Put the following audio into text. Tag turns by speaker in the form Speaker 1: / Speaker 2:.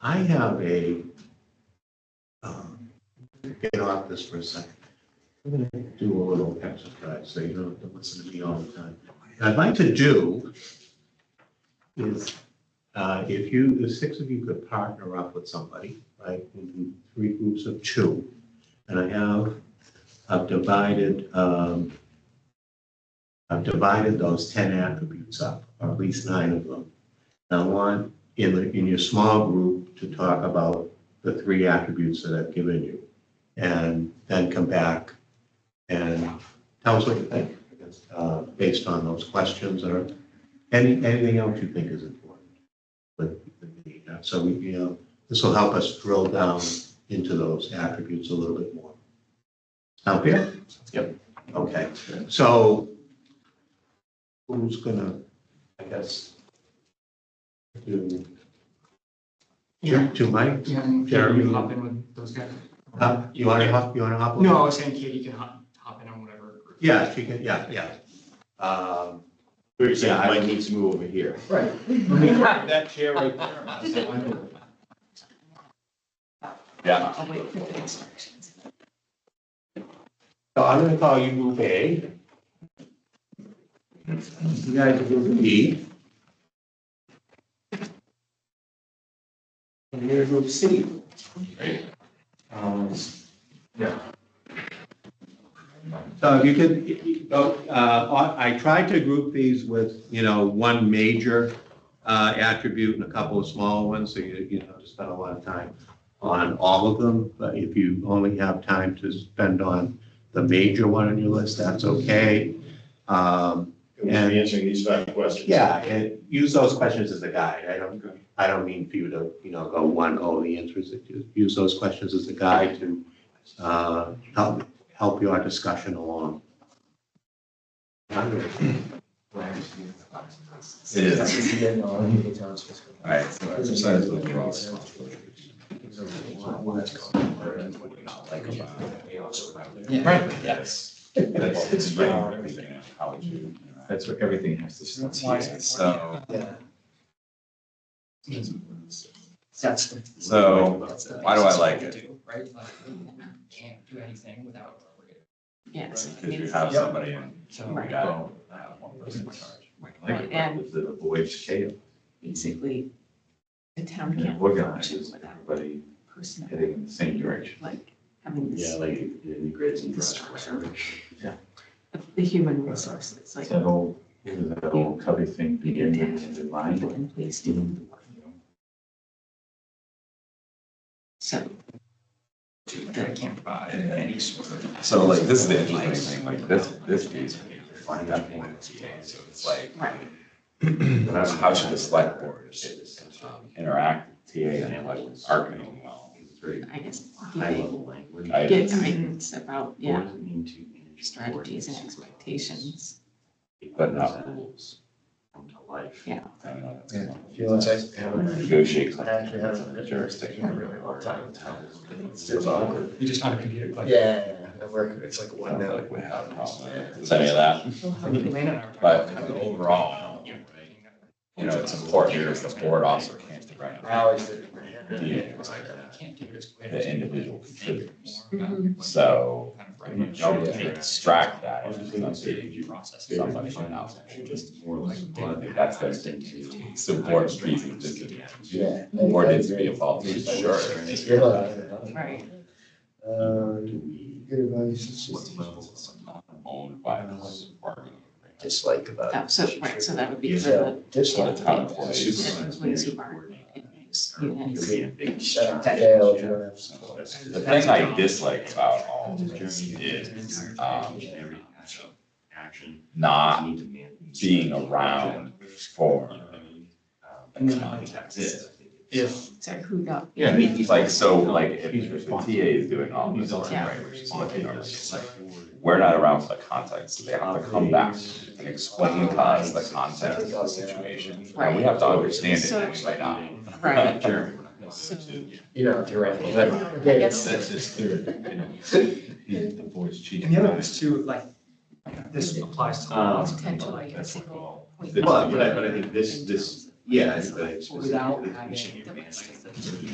Speaker 1: I have a, um, get off this for a second. I'm gonna do a little exercise, so you don't have to listen to me all the time. What I'd like to do is, uh, if you, the six of you could partner up with somebody, right, in three groups of two. And I have, I've divided, um, I've divided those ten attributes up, or at least nine of them. And I want in the, in your small group to talk about the three attributes that I've given you. And then come back and tell us what you think, I guess, uh, based on those questions or any, anything else you think is important. with the meeting. so we, you know, this will help us drill down into those attributes a little bit more. Sound fair? Yep. Okay, so who's gonna, I guess, to,
Speaker 2: Yeah.
Speaker 1: to Mike?
Speaker 2: Yeah, and Katie,
Speaker 1: Jeremy.
Speaker 2: you hop in with those guys.
Speaker 1: Uh, You wanna hop, you wanna hop? over?
Speaker 2: No, I was saying Katie can hop, hop in on whatever. group.
Speaker 1: Yeah, she can, yeah, yeah. Um,
Speaker 3: Where you saying
Speaker 1: Yeah, I-
Speaker 3: Mike needs to move over here.
Speaker 2: Right.
Speaker 1: That chair right there.
Speaker 3: Yeah.
Speaker 4: I'll wait for the instructions.
Speaker 1: So I'm gonna call you group A. You guys are group B. And you're group C. Um,
Speaker 3: Yeah.
Speaker 1: So if you could, if you- oh, uh, I I tried to group these with, you know, one major uh, attribute and a couple of small ones, so you, you don't have to spend a lot of time on all of them. But if you only have time to spend on the major one on your list, that's okay. Um,
Speaker 3: We're answering these five questions.
Speaker 1: yeah, and use those questions as a guide. I don't, I don't mean for you to, you know, go one, oh, the answer is, that you- use those questions as a guide to uh, help, help your discussion along.
Speaker 3: It is.
Speaker 5: All
Speaker 3: Alright, so exercise those rules.
Speaker 2: Right.
Speaker 3: Yes. That's, it's writing everything, out, how would you, that's where everything has to start, here,
Speaker 5: um,
Speaker 3: so.
Speaker 5: That's. the-
Speaker 3: So, why do I like it?
Speaker 5: Do, Right, like, can't do anything without.
Speaker 4: Yes.
Speaker 3: Because you have somebody in,
Speaker 5: So.
Speaker 3: we
Speaker 4: Right.
Speaker 3: got, I have one person in charge. I Like, it,
Speaker 4: And-
Speaker 3: because it avoids chaos,
Speaker 4: Basically, the town
Speaker 3: and it
Speaker 4: can't function
Speaker 3: organizes
Speaker 4: without
Speaker 3: everybody
Speaker 4: personnel,
Speaker 3: heading in the same direction.
Speaker 4: like having
Speaker 6: Yeah,
Speaker 4: this,
Speaker 6: like it integrates and
Speaker 4: the
Speaker 6: drives.
Speaker 4: structure.
Speaker 3: Yeah.
Speaker 4: The human resources, like
Speaker 3: That whole, that whole Covey thing
Speaker 4: you
Speaker 3: begin
Speaker 4: need to
Speaker 3: with is in
Speaker 4: have
Speaker 3: mind.
Speaker 4: people in place doing the work. So
Speaker 5: I can't provide any sort of.
Speaker 3: So like, this is the interesting thing, like this, this piece, find that point of the day, so it's like,
Speaker 4: Right.
Speaker 3: how how should the select board um, interact with TA and like arguing well?
Speaker 6: It's very
Speaker 4: I guess do
Speaker 6: high
Speaker 4: they
Speaker 6: level language.
Speaker 3: I-
Speaker 4: get guidance about, yeah,
Speaker 6: Boards need to manage
Speaker 4: strategies and
Speaker 6: boards.
Speaker 4: expectations.
Speaker 3: But not
Speaker 6: rules. Come to life.
Speaker 3: I don't know, that's
Speaker 5: Yeah.
Speaker 3: kind of-
Speaker 5: Feelings I
Speaker 3: Negotiate.
Speaker 5: I actually haven't-
Speaker 3: Jurisdiction.
Speaker 6: It's just awkward.
Speaker 5: You're just on a computer. like-
Speaker 7: Yeah, I work, it's like
Speaker 3: I don't
Speaker 7: one
Speaker 3: feel
Speaker 7: note.
Speaker 3: like we have a problem with any of that,
Speaker 4: They'll have
Speaker 5: Elena
Speaker 4: it.
Speaker 5: and I were talking
Speaker 3: but
Speaker 5: about that.
Speaker 3: overall,
Speaker 5: Yeah.
Speaker 3: you know, it's important because the board also can't direct
Speaker 7: I always did. it in my
Speaker 3: Yeah.
Speaker 7: head.
Speaker 5: It was like, I can't do this.
Speaker 3: the individual contributors.
Speaker 4: Mhm.
Speaker 2: Mm-hmm.
Speaker 3: So
Speaker 5: Kind
Speaker 6: Oh,
Speaker 5: of
Speaker 3: if
Speaker 5: right.
Speaker 3: you don't extract that,
Speaker 6: I was
Speaker 3: it's
Speaker 6: just gonna say,
Speaker 3: something
Speaker 6: you
Speaker 5: Process.
Speaker 3: somebody should know.
Speaker 6: just more like.
Speaker 3: That's the it's an important piece of this.
Speaker 7: Yeah.
Speaker 3: Board needs to be involved, for sure.
Speaker 4: Right,
Speaker 7: Uh, good
Speaker 3: What level
Speaker 7: advice.
Speaker 3: is not owned by the bargaining agreement?
Speaker 7: Dislike about.
Speaker 4: That- Oh, so, right, so that would be for
Speaker 7: Yeah,
Speaker 4: the
Speaker 7: dislike.
Speaker 3: Town employees.
Speaker 4: Yeah, employees who aren't in these units.
Speaker 7: Shut up, jail, you don't have support.
Speaker 3: The thing I dislike about all of this is, um,
Speaker 6: Action.
Speaker 3: not
Speaker 6: Need to manage.
Speaker 3: being around for
Speaker 5: And
Speaker 3: the
Speaker 5: then I think
Speaker 3: context.
Speaker 5: that's- If.
Speaker 4: Sorry, who got?
Speaker 3: Yeah, it's like, so like, if if the TA is doing all this work, right, which is what they normally do, like, we're not around for the context, so they have to come back and explain to us the context of the situation. And we have to understand it, and we might not.
Speaker 4: Right, so,
Speaker 7: You know, theoretically.
Speaker 4: I
Speaker 7: Yeah.
Speaker 4: guess,
Speaker 6: That's just their, you know, the voice cheating.
Speaker 5: And the other one is too, like, this applies to
Speaker 6: Um,
Speaker 5: laws
Speaker 4: Potential, like, a
Speaker 6: That's what
Speaker 4: single
Speaker 6: all-
Speaker 4: point.
Speaker 6: But, but I, but I think this, this, yeah. I think that it's-
Speaker 5: without having.
Speaker 6: We should manage.